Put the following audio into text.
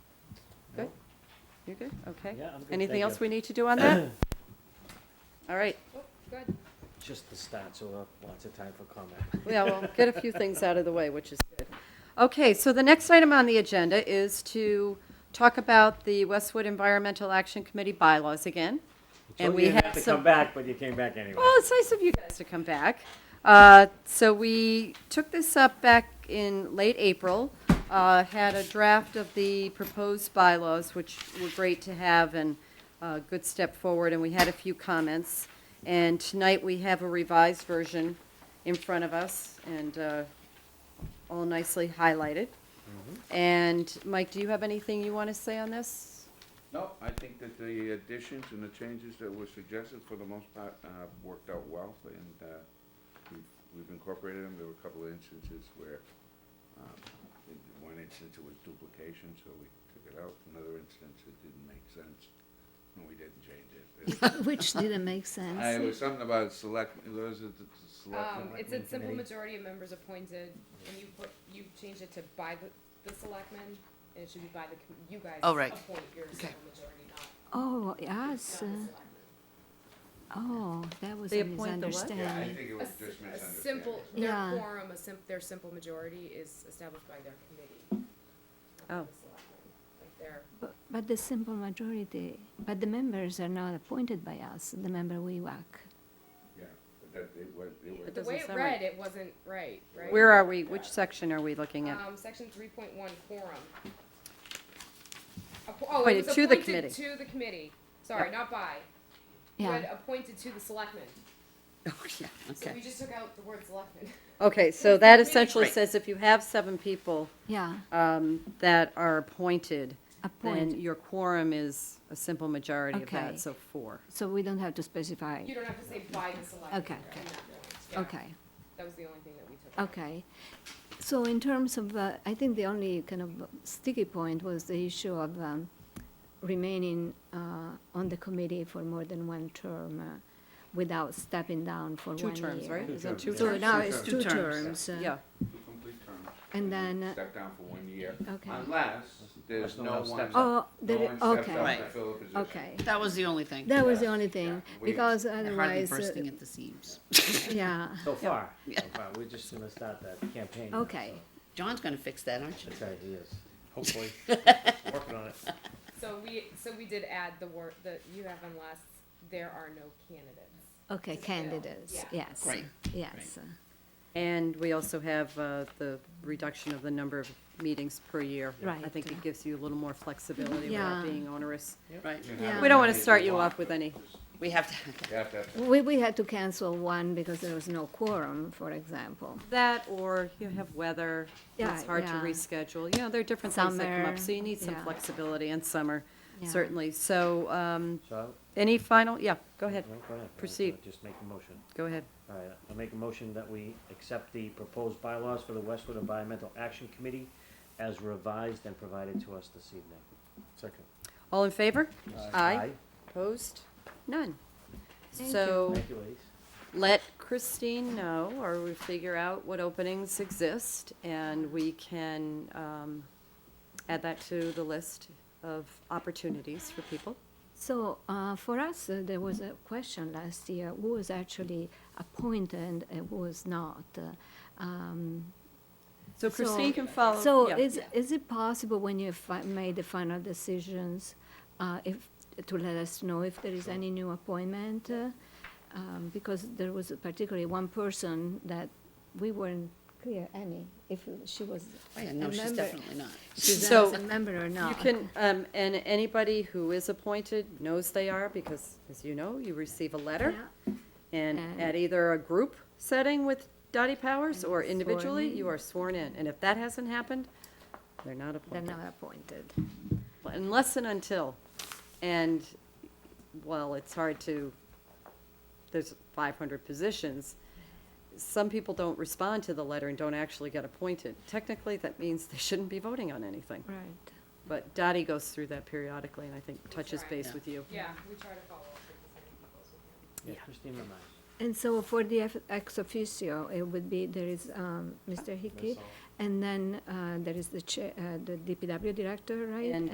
You're good? Okay. Yeah, I'm good, Anything thank else you. we need to do on that? All right. Good. Just the start, so we'll have lots of time for comment. Yeah, well, get a few things out of the way, which is good. Okay, so the next item on the agenda is to talk about the Westwood Environmental Action Committee bylaws again. And Told we you not have to some- Come back, but you came back anyway. Well, it's nice of you guys to come back. Uh, So we took this up back in late April, uh, had a draft of the proposed bylaws, which were great to have and a good step forward, and we had a few comments. And tonight, we have a revised version in front of us and uh, all nicely highlighted. And Mike, do you have anything you want to say on this? No, I think that the additions and the changes that were suggested, for the most part, uh, worked out well, and, uh, we've, we've incorporated them, there were a couple of instances where, um, in one instance it was duplication, so we took it out, another instance it didn't make sense, and we didn't change it. Which didn't make I, it sense. was something about select, was it the Um, selectmen? it's a simple committee. majority of members appointed, and you put, you changed it to by the, the selectmen, and it should be by the, com- you guys. Oh, right. Appoint your simple majority, not, Oh, not the yes, selectmen. oh, that was They a appoint the what? Yeah, I misunderstanding. think it A was s- just A misunderstanding. simple, their Yeah. quorum, a sim, their simple majority is established by their committee. not by Oh. the selectmen. Like their, Bu- But the simple majority, but the members are not appointed by us, the member we whack. Yeah, but that, it was, it was. It the doesn't way it sound right. read, it wasn't right, right? Where are we? Which section are we looking at? Um, section three point one, quorum. Appo- Oh, Appointed it was to the committee. appointed to the committee, sorry, not by. You had Yeah, appointed to the selectmen, so Okay. we just took out the word selectmen. Okay, so that Committee. essentially Right. says if you have seven people yeah, um, that are appointed, then appoint, your quorum is a simple majority of Okay. that, so four. so we don't have to specify. You don't have to say by the selectmen. Okay, in that point. Yeah, Okay, That was the only thing that we took out. okay. So in terms of, uh, I think the only kind of sticky point was the issue of um, remaining uh, on the committee for more than one term uh, without stepping down for one Two year. terms, right? Is that two terms. So terms? now it's Two two terms. terms. uh, Yeah, Two complete terms. And then, uh, Step down for one year, Okay. unless Unless there's no no one one. steps up. Oh, No there, one stepped up okay, Right. to fill a position. okay. That was the only thing. That was the Yeah, only thing, yeah, we- because They're Hardly otherwise, uh, bursting at the seams. yeah, So far, so far, we're just gonna start that campaign. now, okay. so John's gonna fix that, aren't you? That's right, he is. Hopefully. Working on it. So we, so we did add the word, that you have unless there are no candidates. Okay, Yeah. candidates, Yeah. yes, Right, yes. and we also have uh, the reduction of the number of meetings per year. I Right. think it gives you a little more flexibility without Yeah. being onerous. Right. You can Yeah. have We as don't wanna many as start you want, off with but any. just- We have to, oh, You have to have We, we had to cancel one because there was no quorum, for example. That, or you have weather, it's Yeah, hard to yeah. reschedule, you know, there are different things that come Summer, up, so you need some yeah. flexibility in summer, Yeah. certainly. So, um, So, any final, yeah, go ahead, no, go ahead. Proceed. Just make a motion. go ahead. All right, I'll make a motion that we accept the proposed bylaws for the Westwood Environmental Action Committee as revised and provided to us this evening. Second. All in favor? Opposed? None. Thank you. So Thank you, ladies. let Christine know, or we figure out what openings exist, and we can um, add that to the list of opportunities for people. So, uh, for us, uh, there was a question last year, who was actually appointed and who was not? uh, um, So So- Christine can follow. So yeah. is, is it possible when you fi- made the final decisions, uh, if, to let us know if there is any new appointment? uh, um, Because there was particularly one person that we weren't clear, Annie, if she was oh a yeah, no, she's member, definitely not. she's So a member or You not. can, um, and anybody who is appointed knows they are, because, as you know, you receive a letter. Yeah. And And- at either a group setting with Dottie Powers And or sworn individually, in. you are sworn in. And if that hasn't happened, they're not They're appointed. not appointed. unless and until, and, well, it's hard to, there's five hundred positions. Some people don't respond to the letter and don't actually get appointed. Technically, that means they shouldn't be voting on anything. Right. But Dottie goes through that periodically and I think touches right. base Yeah. with you. Yeah, we try to follow up with as many people as we can. Yeah, Christine reminds. And so for the eff- ex officio, it would be, there is uh, um, Mr. Hickey, and then uh, there is the chair, the DPW director, right? And